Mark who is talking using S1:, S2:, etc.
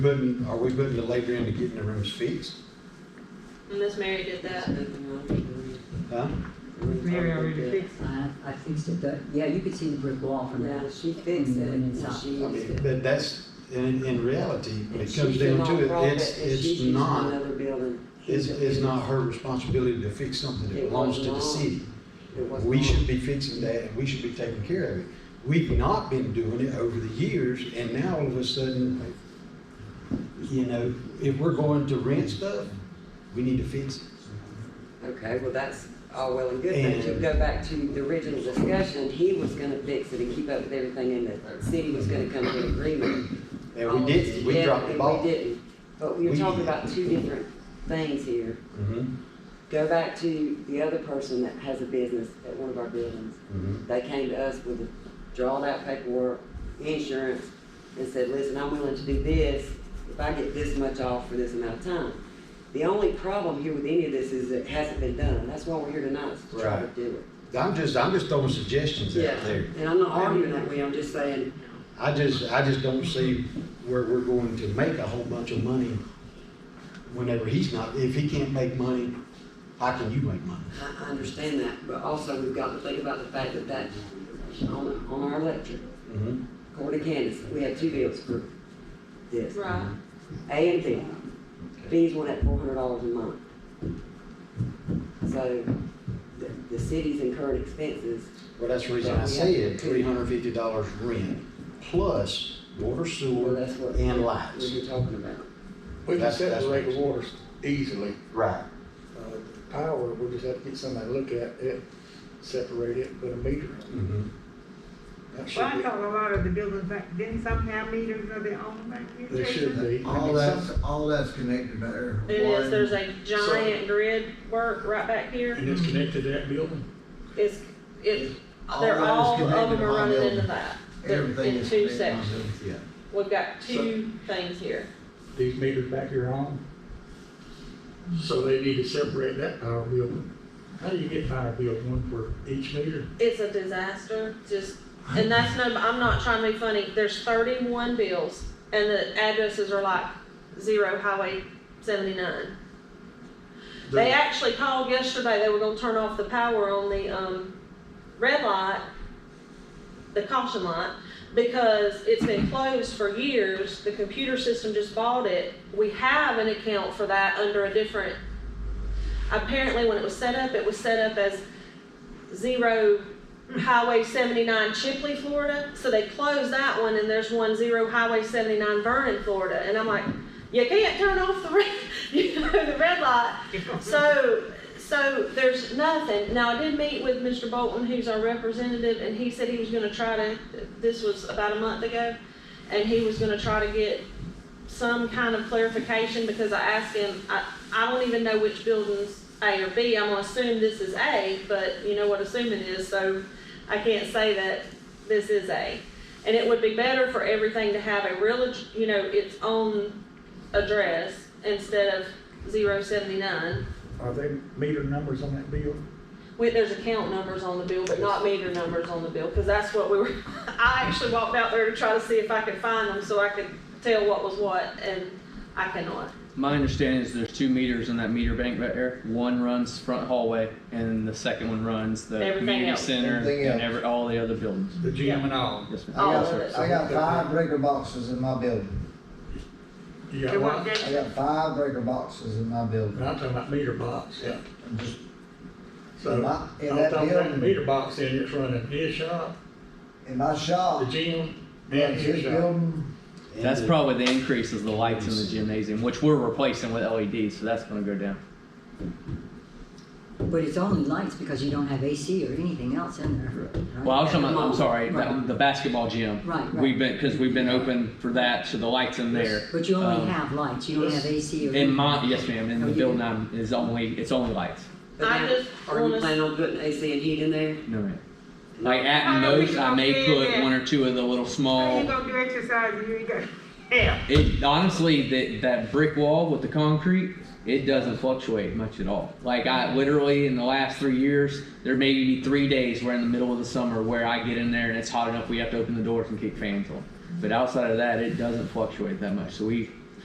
S1: Putting, are we putting the labor into getting the rooms fixed?
S2: Miss Mary did that.
S1: Huh?
S3: Mary already fixed it.
S4: I, I fixed it, but, yeah, you could see the brick wall from
S5: Yeah,
S4: that.
S5: she fixed it, and she used it.
S1: But that's, in, in reality, when it
S5: If
S1: comes
S5: she's
S1: down
S5: a
S1: to it,
S5: nonprofit,
S1: it's,
S5: if she's
S1: it's
S5: using
S1: not,
S5: Another building.
S1: it's,
S5: she's-
S1: it's not her responsibility to fix something that
S5: It
S1: belongs to the
S5: wasn't on.
S1: city.
S5: It was
S1: We
S5: not.
S1: should be fixing that, and we should be taking care of it. We've not been doing it over the years, and now all of a sudden, you know, if we're going to rent stuff, we need to fix it.
S5: Okay, well, that's all well and good, but you
S1: And-
S5: go back to the original discussion, he was gonna fix it and keep up with everything, and the city was gonna come to an agreement.
S1: And
S5: All
S1: we didn't, we
S5: together,
S1: dropped the
S5: and
S1: ball.
S5: Oh, We didn't, but you're
S1: We-
S5: talking about two different things here.
S1: Mhm,
S5: Go back to the other person that has a business at one of our buildings.
S1: mhm.
S5: They came to us with a drawn out paperwork, insurance, and said, listen, I'm willing to do this if I get this much off for this amount of time. The only problem here with any of this is it hasn't been done. That's why we're here tonight, is to try to
S1: Right.
S5: do
S1: I'm just, I'm just throwing suggestions
S5: it.
S1: out there.
S5: And I'm not arguing that way, I'm just saying,
S1: I just, I just don't see where we're going to make a whole bunch of money whenever he's not, if he can't make money, how can you make money?
S5: I, I understand that, but also we've got to think about the fact that that, on, on our electric,
S1: Mhm.
S5: according to Candace, we have two bills for this.
S2: Right.
S5: A and B. B's one at four hundred dollars a month. So the, the city's incurred expenses,
S1: Well, that's the reason I said three hundred fifty dollars rent plus water,
S5: well,
S1: sewer,
S5: that's what
S1: and
S5: we
S1: lights.
S5: were talking about.
S6: We can
S1: That's- that's
S6: separate
S1: what-
S6: the waters easily.
S1: Right.
S6: Uh, Power, we just have to get somebody to look at it, separate it, put a meter on
S1: Mhm.
S6: it. That
S3: Well, I
S6: should
S3: thought a lot of the buildings back, didn't somehow meters are their own back here?
S6: be, they should be. I
S7: All
S6: mean,
S7: that's,
S6: some-
S7: all that's connected by there.
S2: It is, there's a
S6: So-
S2: giant grid work right back here.
S8: And it's connected to that building?
S2: It's, it's,
S7: All
S2: they're
S7: that is
S2: all, of
S7: connected
S2: them are
S7: on
S2: running
S7: the-
S2: into that. They're
S7: Everything
S2: in
S7: is
S2: two
S7: connected on
S2: sections.
S7: them.
S2: We've got two things here.
S8: These meters back here on? So they need to separate that power bill. How do you get power bill, one for each meter?
S2: It's a disaster, just, and that's no, I'm not trying to be funny. There's thirty-one bills and the addresses are like zero highway seventy-nine. They actually called yesterday, they were gonna turn off the power on the, um, red light, the caution light, because it's been closed for years, the computer system just bought it. We have an account for that under a different, apparently when it was set up, it was set up as zero Highway seventy-nine Chipley, Florida, so they closed that one and there's one zero Highway seventy-nine Vernon, Florida, and I'm like, you can't turn off the red, you know, the red light so, so there's nothing. Now, I did meet with Mr. Bolton, who's our representative, and he said he was gonna try to, this was about a month ago, and he was gonna try to get some kind of clarification, because I asked him, I, I don't even know which building's A or B. I'm gonna assume this is A, but you know what assuming is, so I can't say that this is A. And it would be better for everything to have a real, ad- you know, its own address instead of zero seventy-nine.
S8: Are they meter numbers on that bill?
S2: Wait, there's account numbers on the bill, but not meter numbers on the bill, because that's what we were, I actually walked out there to try to see if I could find them, so I could tell what was what, and I cannot.
S9: My understanding is there's two meters in that meter bank right there. One runs front hallway, and the second one runs the
S2: Everything
S9: community
S2: else.
S9: center
S7: Everything else.
S9: and
S7: Oh.
S9: every, all the other buildings.
S8: The gym and all?
S9: Yes, ma'am.
S2: All
S7: I
S2: of
S7: got-
S2: it.
S7: I got five breaker boxes in my building.
S8: You
S3: It
S8: got
S3: wasn't
S8: what?
S3: that-
S7: I got five breaker boxes in my building.
S8: I'm talking about meter box, yeah.
S7: Just-
S8: So,
S7: In my-
S8: I'm
S7: in
S8: talking
S7: that
S8: about the
S7: building.
S8: meter box in, it's running his shop,
S7: In my
S8: the
S7: shop,
S8: gym, and
S7: runs
S8: his
S7: his
S8: shop.
S7: building,
S1: And
S9: That's
S1: the-
S9: probably the increase is the lights in the gymnasium, which we're replacing with LEDs, so that's gonna go down.
S4: But it's only lights because you don't have AC or anything else in there. right?
S9: Well, I was talking about, I'm sorry,
S4: Right.
S9: that- the basketball gym.
S4: Right, right.
S9: We've been, cause we've been open for that, so the lights in there.
S4: But you
S9: Um,
S4: only have lights, you don't have AC or.
S9: In my, yes ma'am, in
S4: Oh,
S9: the
S4: you
S9: building
S4: do?
S9: I'm, is only, it's only lights.
S5: But
S2: I
S5: now,
S2: just
S5: Are you
S2: wanna-
S5: planning on putting AC and heat in there?
S9: No ma'am. Like at most, I may put one or two of the little
S3: How
S9: small
S3: you gonna do exercise and you ain't got, hell,
S9: It honestly, that that brick wall with the concrete, it doesn't fluctuate much at all. Like I literally in the last three years, there may be three days where in the middle of the summer where I get in there and it's hot enough we have to open the doors and kick fans on. But outside of that, it doesn't fluctuate that much. So we